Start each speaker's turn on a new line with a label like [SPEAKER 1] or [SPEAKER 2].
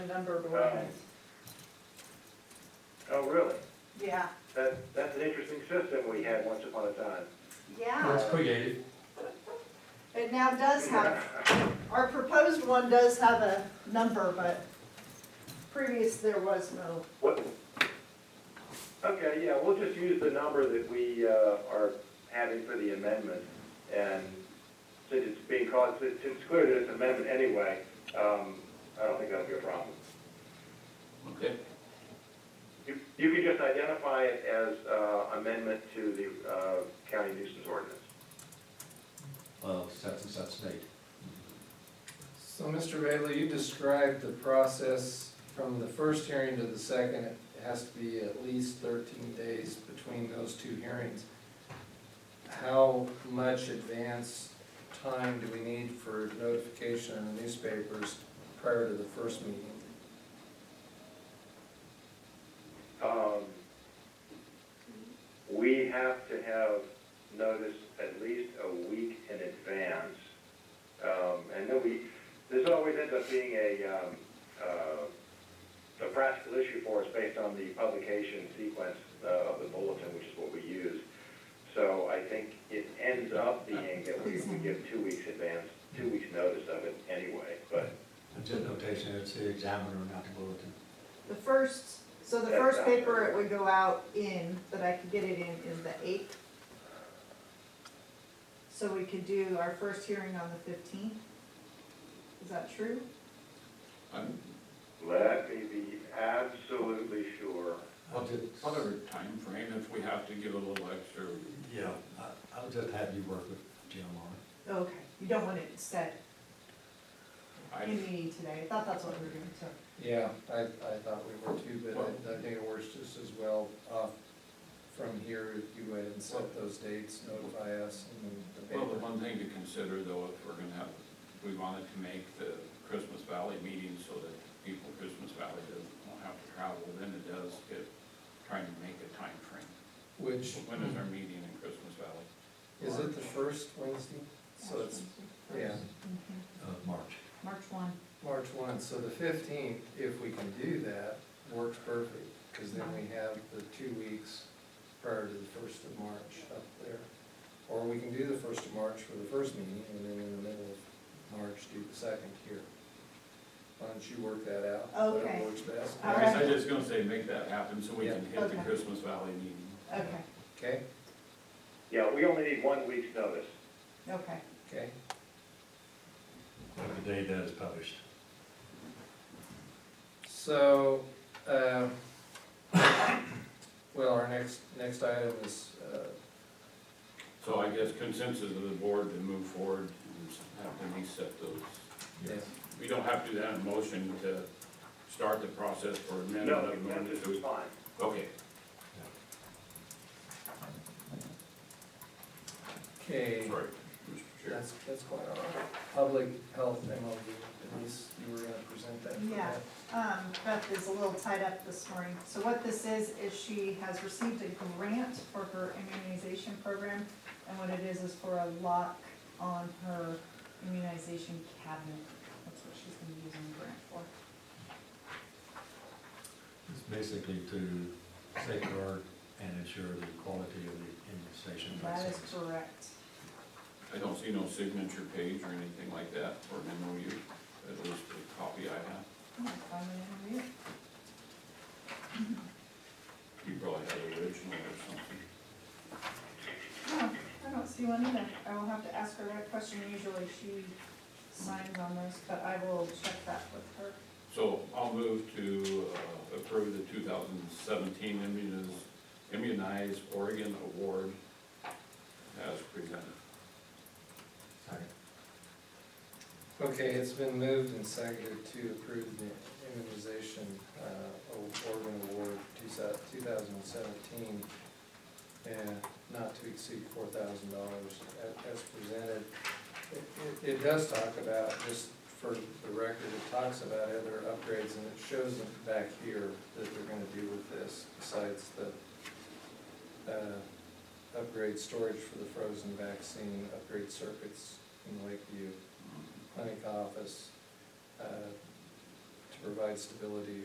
[SPEAKER 1] number of
[SPEAKER 2] Um,
[SPEAKER 1] awareness.
[SPEAKER 2] Oh, really?
[SPEAKER 1] Yeah,
[SPEAKER 2] That, that's an interesting system we had once upon a time.
[SPEAKER 1] yeah,
[SPEAKER 3] That's creative.
[SPEAKER 1] it now does have, our proposed one does have a number, but previous there was no.
[SPEAKER 2] What? Okay, yeah, we'll just use the number that we, uh, are having for the amendment. And since it's being called, since it's clear that it's an amendment anyway, um, I don't think that'll be a problem.
[SPEAKER 3] Okay.
[SPEAKER 2] You, you can just identify it as, uh, amendment to the, uh, county nuisance ordinance.
[SPEAKER 3] Of such and such date.
[SPEAKER 4] So, Mr. Bailey, you described the process from the first hearing to the second. It has to be at least thirteen days between those two hearings. How much advance time do we need for notification in the newspapers prior to the first meeting?
[SPEAKER 2] Um, We have to have notice at least a week in advance. Um, And then we, this always ends up being a, um, uh, a practical issue for us based on the publication sequence uh, of the bulletin, which is what we use. So I think it ends up being that we we give two weeks advance, two weeks notice of it anyway, but
[SPEAKER 5] It's a notation, it's the examiner, not the bulletin.
[SPEAKER 1] The first, so the first paper it would go out in, that I could get it in, is the eighth. So we could do our first hearing on the fifteenth. Is that true?
[SPEAKER 2] let me be absolutely sure.
[SPEAKER 5] I'll just-
[SPEAKER 6] Other time frame if we have to give a little extra.
[SPEAKER 5] Yeah, I- I'll just have you work with Jim on it.
[SPEAKER 1] Okay, you don't want it set in
[SPEAKER 6] I,
[SPEAKER 1] meeting today, I thought that's what we were doing, so.
[SPEAKER 4] Yeah, I, I thought we were too, but I, I think it works just as well off from here if you went and set those dates, notify us and the
[SPEAKER 6] well, the
[SPEAKER 4] paper.
[SPEAKER 6] one thing to consider though, if we're gonna have, we wanted to make the Christmas Valley meeting so that people in Christmas Valley doesn't, won't have to travel, then it does get, trying to make a time frame.
[SPEAKER 4] Which,
[SPEAKER 6] When is our meeting in Christmas Valley?
[SPEAKER 4] is it the first Wednesday? So it's, yeah.
[SPEAKER 1] Mhm.
[SPEAKER 5] Uh, March.
[SPEAKER 1] March one.
[SPEAKER 4] March one, so the fifteenth, if we can do that, works perfect, because then we have the two weeks prior to the first of March up there. Or we can do the first of March for the first meeting, and then in the middle of March, do the second here. Why don't you work that out? whatever
[SPEAKER 1] Okay.
[SPEAKER 4] Works best,
[SPEAKER 1] All
[SPEAKER 6] I was-
[SPEAKER 1] right.
[SPEAKER 6] I was just gonna say, make that happen so we can hit the
[SPEAKER 1] Okay.
[SPEAKER 6] Christmas Valley meeting.
[SPEAKER 1] Okay,
[SPEAKER 4] okay,
[SPEAKER 2] Yeah, we only need one week's notice.
[SPEAKER 1] okay.
[SPEAKER 4] okay,
[SPEAKER 5] The day that is published.
[SPEAKER 4] so, uh, well, our next, next item is, uh,
[SPEAKER 6] So I guess consensus of the board to move forward and have to reset those.
[SPEAKER 4] yeah.
[SPEAKER 6] We don't have to do that in motion to start the process for amendment
[SPEAKER 2] No,
[SPEAKER 6] of the
[SPEAKER 2] that's
[SPEAKER 6] ordinance.
[SPEAKER 2] just fine.
[SPEAKER 6] Okay.
[SPEAKER 4] okay.
[SPEAKER 6] Sorry, Mr. Chair.
[SPEAKER 4] That's, that's quite all right. Public health MLD, Denise, you were gonna present that. for
[SPEAKER 1] Yeah.
[SPEAKER 4] that.
[SPEAKER 1] Um, Beth is a little tied up this morning. So what this is, is she has received a grant for her immunization program. And what it is, is for a lock on her immunization cabinet. That's what she's gonna be using the grant for.
[SPEAKER 5] It's basically to safeguard and ensure the quality of the immunization
[SPEAKER 1] That is
[SPEAKER 5] vaccines.
[SPEAKER 1] correct.
[SPEAKER 6] I don't see no signature page or anything like that for an MOU, at least the copy I have.
[SPEAKER 1] I'm gonna find it in here.
[SPEAKER 6] You probably have the original or something.
[SPEAKER 1] No, I don't see one either. I will have to ask her that question. Usually she signs on this, but I will check that with her.
[SPEAKER 6] So I'll move to uh, approve the two thousand seventeen immunize, immunize Oregon award as presented.
[SPEAKER 5] Second.
[SPEAKER 4] Okay, it's been moved and seconded to approve the immunization, uh, Oregon Award two thousand seventeen, and not to exceed four thousand dollars as presented. It- It, it does talk about, just for the record, it talks about other upgrades, and it shows them back here that they're gonna do with this, besides the, uh, upgrade storage for the frozen vaccine, upgrade circuits in Lakeview, clinic office, uh, to provide stability